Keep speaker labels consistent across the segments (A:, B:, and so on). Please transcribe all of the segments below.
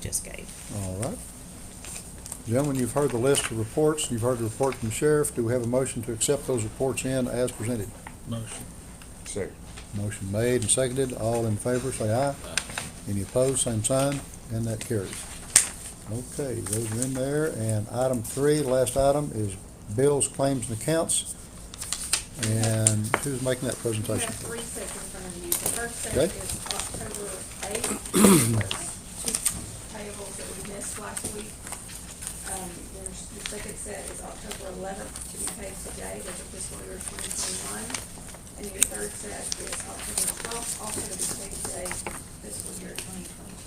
A: just gave.
B: All right. Gentlemen, you've heard the list of reports, you've heard the report from the sheriff. Do we have a motion to accept those reports in as presented?
C: Motion.
D: Second.
B: Motion made and seconded. All in favor, say aye. Any opposed, same sign, and that carries. Okay, those are in there, and item three, last item, is bills, claims, and accounts. And who's making that
E: You have
B: presentation?
E: three sets in front of you. The first set
B: Okay.
E: is October eighth, two payables that we missed last week. Um, there's, the second set is October eleventh, to be paid today, that's of fiscal year twenty twenty-one. And your third set is October twelfth, also to be paid today, fiscal year twenty twenty-two.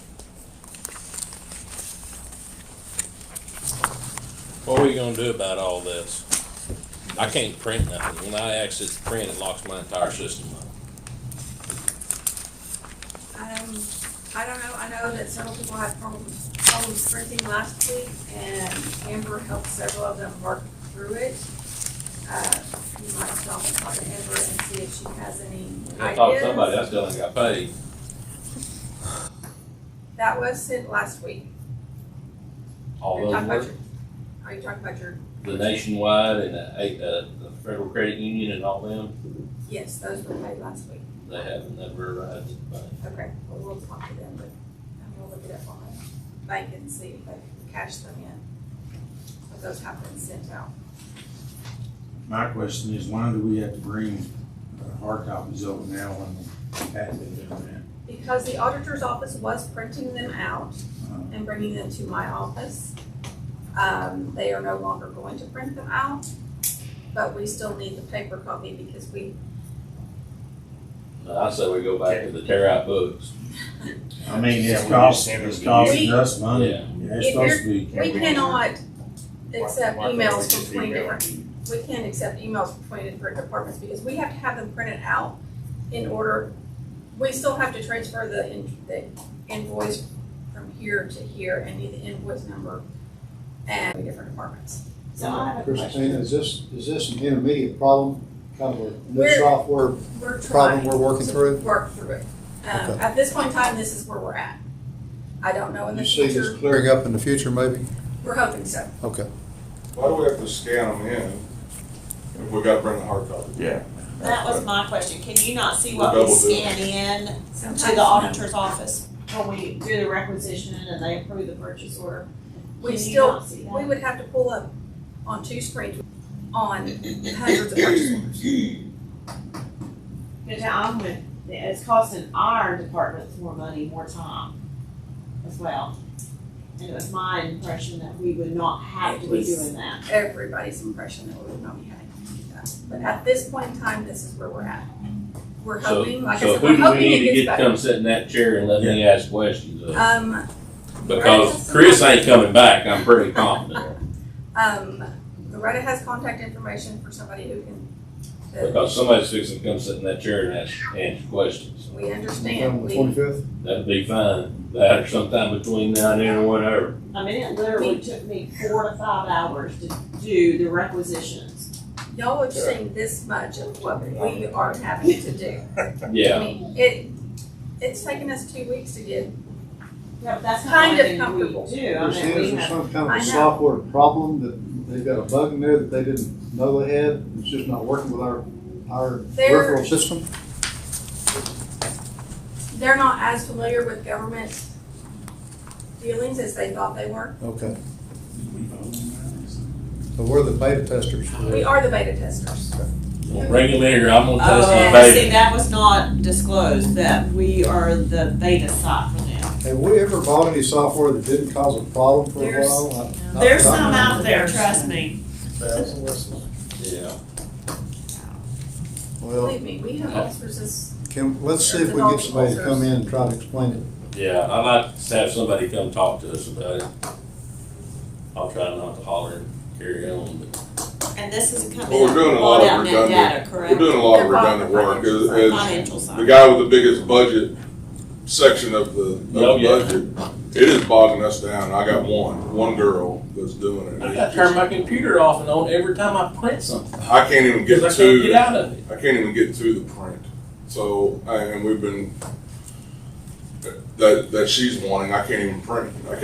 F: What are we gonna do about all this? I can't print nothing. When I access the print, it locks my entire system up.
E: Um, I don't know, I know that several people had problems, problems printing last week, and Amber helped several of them work through it. Uh, you might stop and talk to Amber and see if she has any ideas.
F: Oh, else done got paid.
E: That was sent last week.
F: All
E: You're
F: those
E: talking about
F: were,
E: your- Are you talking about your,
F: the nationwide and the, eight- uh, the Federal Credit Union and all them,
E: yes, those were paid last week.
F: they haven't never arrived at the bank.
E: Okay, well, we'll talk to them, but I'm gonna look it up on the bank and see if they can cash them in. But those have been sent out.
G: My question is, why do we have to bring uh, hard copies over now when we had been doing
E: Because the auditor's office was printing them out
G: that?
E: and bringing them to my office. Um, they are no longer going to print them out, but we still need the paper copy because we,
F: I say we go back to the tear out books.
G: Uh, I mean,
D: Yeah,
G: it's
D: we just
G: costing,
D: send
G: it's
D: them to
G: costing
E: you.
G: us money.
F: Yeah.
G: Yeah, It's
E: If you're-
G: supposed to be.
E: we cannot accept
D: Why- why can't we
E: emails
D: just
E: from twenty
D: email?
E: different, we can't accept emails from twenty different departments because we have to have them printed out in order, we still have to transfer the, in- the invoice from here to here and need the invoice number and different departments. So I have a question.
B: Christina, is this, is this an intermediate problem, kind of a new
E: We're-
B: software
E: We're trying.
B: problem we're working
E: to
B: through?
E: Work through it. Um,
B: Okay.
E: at this point in time, this is where we're at. I don't know in the
B: You see this
E: future,
B: clearing up in the future, maybe?
E: we're hoping so.
B: Okay.
D: Why do we have to scan them in if we gotta bring the hard copy?
G: Yeah.
H: That was my question, can you not see what
D: Double
H: we
D: bill.
H: scan in to
E: Sometimes
H: the auditor's office when we do the requisition and they approve the purchase order?
E: We
H: Can you
E: still-
H: not see that?
E: We would have to pull up on two screens on hundreds of purchase orders.
H: Cause I'm with, it's costing our departments more money, more time as well. And it was my impression that we would not have to
E: It
H: be
E: was-
H: doing that.
E: Everybody's impression that we would not be having to do that. But at this point in time, this is where we're at. We're
F: So,
E: hoping, like I
F: so
E: said,
F: who
E: we're
F: do we
E: hoping
F: need
E: it
F: to
E: gets
F: get to
E: better.
F: come sit in that chair and let me ask questions of?
E: Um,
F: Because Chris ain't coming back, I'm pretty confident.
E: um, Loretta has contact information for somebody who can. that
F: Because somebody's fixing to come sit in that chair and ask, answer questions.
E: We understand. We-
B: Twenty-fifth?
F: That'd be fine. That or sometime between now and then or whatever.
H: I mean, it literally took me four to five hours to do the requisitions.
E: Y'all are seeing this much of what we are having to do. I
F: Yeah.
E: mean, it, it's taken us two weeks to get,
H: Yeah, but that's
E: Kind
H: not
E: of
H: something we
E: comfortable.
H: do, I mean, we have,
B: some kind
E: I know.
B: problem that they've got a bug in there that they didn't know they had? It's just not working with our, our
E: They're-
B: peripheral system?
E: they're not as familiar with government dealings as they thought they were.
B: Okay, so we're the beta testers for
E: We
B: this.
E: are the beta testers.
F: Regulator, I'm gonna test
H: oh,
F: his
H: see,
F: baby.
H: that was not disclosed, that we are the beta site for them.
B: Have we ever bought any software that didn't cause a problem for a
H: There's-
B: while? I- not
H: There's
B: that I
H: some
B: know of.
H: out there, trust me.
F: Yeah.
B: Well,
E: Believe me, we have officers,
B: can, let's see if we can get somebody to come in and try to explain it.
F: Yeah, I'd like to have somebody come talk to us about it. I'll try not to holler and carry on, but
H: And this is a company
D: Well, we're
H: that
D: doing a lot
H: bought
D: of
H: out net data,
D: redundant- We're
H: correct?
D: doing a lot of
E: They're buying
D: redundant work.
E: financial
D: As,
E: side.
D: as
H: Financial
D: the
H: side.
D: guy with the biggest budget section of the, of
F: Oh, yeah.
D: the budget, it is bogging us down. I got one, one girl that's doing it.
F: I
D: It's
F: gotta
D: just-
F: turn my computer off and on every time I print something.
D: I can't even get
F: Cause
D: to.
F: I can't get out of it.
D: I can't even get to the print. So, and we've been, that, that she's wanting, I can't even print. I can't